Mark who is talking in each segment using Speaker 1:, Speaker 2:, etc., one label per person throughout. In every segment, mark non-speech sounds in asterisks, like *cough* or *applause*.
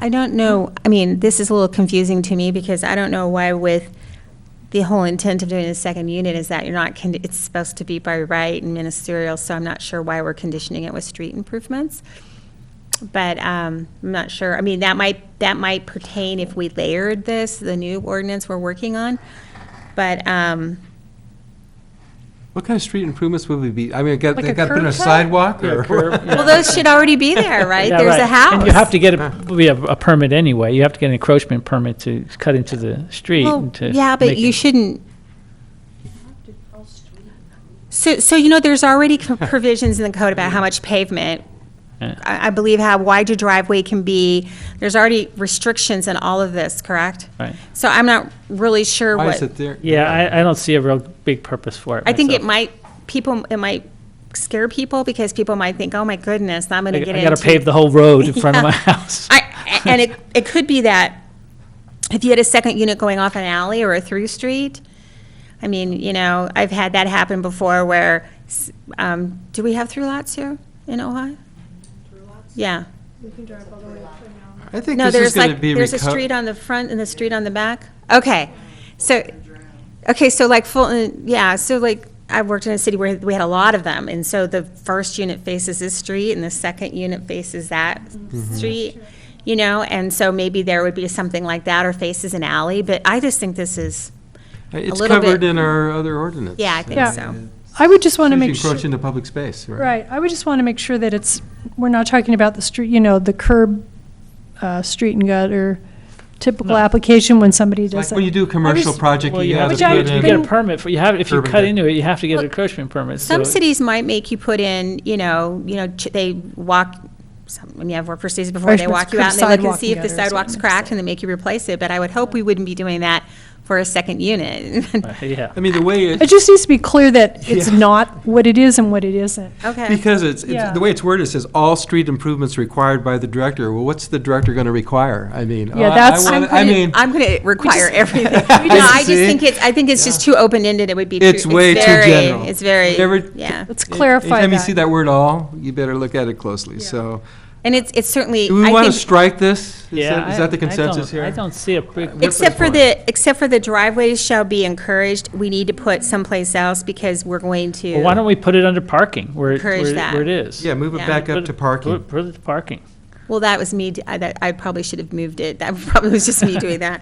Speaker 1: I don't know, I mean, this is a little confusing to me because I don't know why with the whole intent of doing a second unit is that you're not, con- it's supposed to be by right and ministerial, so I'm not sure why we're conditioning it with street improvements. But um, I'm not sure, I mean, that might, that might pertain if we layered this, the new ordinance we're working on. But, um,
Speaker 2: What kind of street improvements would we be, I mean, I got,
Speaker 3: Like
Speaker 2: they
Speaker 3: a
Speaker 2: got to put in a
Speaker 3: curb cut?
Speaker 2: sidewalk
Speaker 4: Yeah,
Speaker 2: or?
Speaker 3: *laughs*
Speaker 4: curb, yeah.
Speaker 1: well, those should already be there, right?
Speaker 3: Yeah,
Speaker 1: There's a
Speaker 3: right.
Speaker 1: house.
Speaker 3: And you have to get a, we have a permit anyway. You have to get an encroachment permit to cut into the street
Speaker 1: Well,
Speaker 3: and to.
Speaker 1: Yeah, but
Speaker 3: make
Speaker 1: you
Speaker 3: it-
Speaker 1: shouldn't. So, so you know, there's already
Speaker 3: *laughs*
Speaker 1: co- provisions in the code about how much pavement,
Speaker 3: Yeah.
Speaker 1: I, I believe how wide your driveway can be. There's already restrictions in all of this, correct?
Speaker 3: Right.
Speaker 1: So I'm not really sure
Speaker 2: *laughs* Why is
Speaker 1: what,
Speaker 2: it there?
Speaker 3: Yeah, I, I don't see a real big purpose for it.
Speaker 1: I think it
Speaker 3: myself.
Speaker 1: might, people, it might scare people because people might think, oh my goodness, I'm gonna
Speaker 3: I
Speaker 1: get
Speaker 3: I
Speaker 1: into.
Speaker 3: gotta pave the whole
Speaker 1: *laughs*
Speaker 3: road in front of my
Speaker 1: Yeah.
Speaker 3: house.
Speaker 1: I, and it, it could be that if you had a second unit going off an alley or a through street, I mean, you know, I've had that happen before where, s- um, do we have through lots here in Ojai? Yeah.
Speaker 2: I think
Speaker 1: No,
Speaker 2: this is
Speaker 1: there's
Speaker 2: going to
Speaker 1: like,
Speaker 2: be.
Speaker 1: there's a
Speaker 2: reco-
Speaker 1: street on the front and the street on the back? Okay, so, okay, so like Fulton, yeah, so like, I worked in a city where we had a lot of them, and so the first unit faces this street and the second unit faces that
Speaker 2: Mm-hmm.
Speaker 1: street, you know, and so maybe there would be something like that or faces an alley, but I just think this is,
Speaker 2: It's
Speaker 1: little
Speaker 2: covered
Speaker 1: bit.
Speaker 2: in our other ordinance.
Speaker 1: yeah, I think
Speaker 2: Uh,
Speaker 5: Yeah.
Speaker 1: so.
Speaker 5: I would just want to
Speaker 2: If you
Speaker 5: make sure,
Speaker 2: encroach into public space, right?
Speaker 5: right, I would just want to make sure that it's, we're not talking about the street, you know, the curb, uh, street and gutter, typical application when somebody
Speaker 2: Like
Speaker 5: does
Speaker 2: when you
Speaker 5: that.
Speaker 2: do a commercial
Speaker 5: just-
Speaker 2: project,
Speaker 3: *laughs* Well,
Speaker 2: you
Speaker 3: you
Speaker 2: have
Speaker 3: have
Speaker 2: to
Speaker 5: Which
Speaker 3: to
Speaker 5: I-
Speaker 2: put
Speaker 3: get- you get a
Speaker 2: in,
Speaker 3: permit, for- you have, if you
Speaker 2: Urban
Speaker 3: cut
Speaker 2: bit.
Speaker 3: into it, you have to get an
Speaker 1: Look,
Speaker 3: encroachment permit.
Speaker 1: Some
Speaker 3: so-
Speaker 1: cities might make you put in, you know, you know, ch- they walk, some, I mean, I've worked for cities before, they
Speaker 5: Freshman's
Speaker 1: walk you
Speaker 5: crib
Speaker 1: out and they look and
Speaker 5: sidewalk
Speaker 1: see if the
Speaker 5: gutters, yeah,
Speaker 1: sidewalk's
Speaker 5: makes
Speaker 1: cracked
Speaker 5: sense.
Speaker 1: and they make you replace it, but I would hope we wouldn't be doing that for a second unit. *laughs*
Speaker 3: Yeah.
Speaker 2: I mean, the way
Speaker 5: It
Speaker 2: it,
Speaker 5: just needs to be
Speaker 2: *laughs*
Speaker 5: clear that it's
Speaker 2: Yeah.
Speaker 5: not what it is and what it isn't.
Speaker 1: Okay.
Speaker 2: because it's, it's-
Speaker 5: Yeah.
Speaker 2: the way it's worded, it says all street improvements required by the director. Well, what's the director going to require? I mean.
Speaker 5: Yeah,
Speaker 2: I- I
Speaker 5: that's-
Speaker 2: wanna-
Speaker 1: I'm
Speaker 2: I mean,
Speaker 1: gonna, I'm gonna
Speaker 2: *laughs*
Speaker 1: require everything. No, I just
Speaker 2: See?
Speaker 1: think it's, I think it's just too open-ended, it would be. too-
Speaker 2: It's way too
Speaker 1: very-
Speaker 2: general.
Speaker 1: It's very,
Speaker 2: Whatever-
Speaker 1: yeah.
Speaker 5: Let's clarify
Speaker 2: anytime you see
Speaker 5: that.
Speaker 2: that word all, you better look at it closely, so.
Speaker 1: And it's, it's certainly,
Speaker 2: Do we
Speaker 1: I
Speaker 2: want to
Speaker 1: think,
Speaker 2: strike this? Is
Speaker 3: Yeah,
Speaker 2: that- is that the
Speaker 3: I- I don't-
Speaker 2: consensus here?
Speaker 3: I don't see a big.
Speaker 2: Except
Speaker 1: except for
Speaker 2: for
Speaker 1: the, except for the driveways shall be encouraged, we need to put someplace else because we're going to.
Speaker 3: Well, Why don't we put it under parking, where, it-
Speaker 1: Encourage
Speaker 3: where it-
Speaker 1: that.
Speaker 3: where it is?
Speaker 2: Yeah, move it
Speaker 1: Yeah.
Speaker 2: back up
Speaker 3: Put it-
Speaker 2: to parking.
Speaker 3: Put put it to parking.
Speaker 1: Well, that was me, d- I, that- I probably should have moved it, that probably was just me doing that.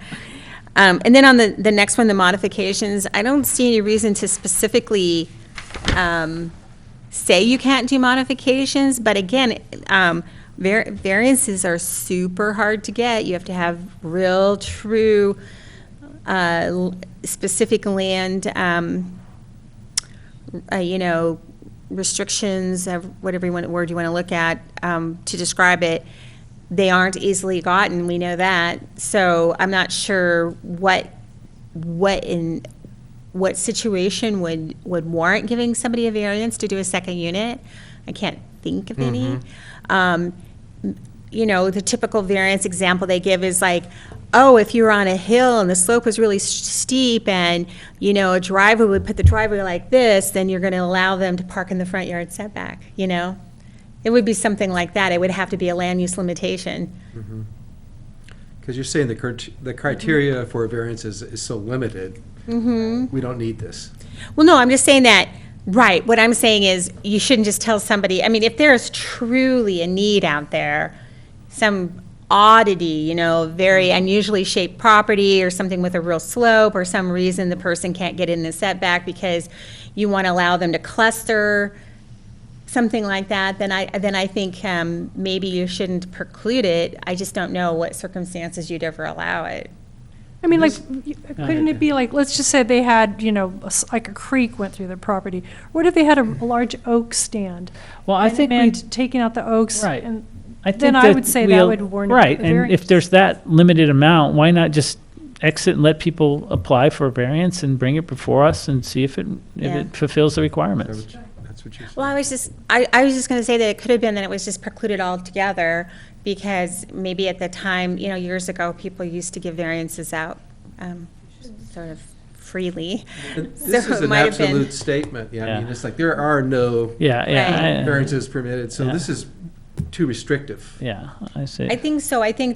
Speaker 1: Um, and then on the, the next one, the modifications, I don't see any reason to specifically, um, say you can't do modifications, but again, um, var- variances are super hard to get, you have to have real, true, uh, l- specific land, um, uh, you know, restrictions, of whatever you want, word you want to look at, um, to describe it, they aren't easily gotten, we know that. So I'm not sure what, what in, what situation would, would warrant giving somebody a variance to do a second unit. I can't think of any. Um, you know, the typical variance example they give is like, oh, if you were on a hill and the slope was really s- steep and, you know, a driver would put the driveway like this, then you're going to allow them to park in the front yard setback, you know? It would be something like that. It would have to be a land use limitation.
Speaker 2: Because you're saying the crit- the criteria for a variance is, is so limited.
Speaker 1: Mm-hmm.
Speaker 2: We don't need this.
Speaker 1: Well, no, I'm just saying that, right, what I'm saying is, you shouldn't just tell somebody, I mean, if there's truly a need out there, some oddity, you know, very unusually shaped property or something with a real slope or some reason the person can't get in the setback because you want to allow them to cluster, something like that, then I, then I think um, maybe you shouldn't preclude it. I just don't know what circumstances you'd ever allow it.
Speaker 5: I mean, like, y- couldn't it be like, let's just say they had, you know, a s- like a creek went through their property. What if they had a a large oak stand?
Speaker 3: Well, I
Speaker 5: And it
Speaker 3: think we-
Speaker 5: meant taking out the oaks
Speaker 3: Right.
Speaker 5: and
Speaker 3: I
Speaker 5: Then
Speaker 3: think
Speaker 5: I
Speaker 3: that
Speaker 5: would say that
Speaker 3: we'll-
Speaker 5: would warrant a
Speaker 3: Right, and
Speaker 5: variance.
Speaker 3: if there's that limited amount, why not just exit and let people apply for a variance and bring it before us and see if it, if
Speaker 1: Yeah.
Speaker 3: it fulfills the requirements?
Speaker 2: That's what you're saying.
Speaker 1: Well, I was just, I, I was just going to say that it could have been that it was just precluded altogether because maybe at the time, you know, years ago, people used to give variances out um, sort of freely.
Speaker 2: This
Speaker 1: *laughs* So
Speaker 2: is
Speaker 1: it
Speaker 2: an
Speaker 1: might have been-
Speaker 2: absolute statement. Yeah, I mean,
Speaker 3: Yeah.
Speaker 2: it's like, there are no
Speaker 3: Yeah,
Speaker 1: Right.
Speaker 3: yeah. I-
Speaker 2: variances permitted, so
Speaker 3: Yeah.
Speaker 2: this is too restrictive.
Speaker 3: Yeah, I see.
Speaker 1: I think so. I think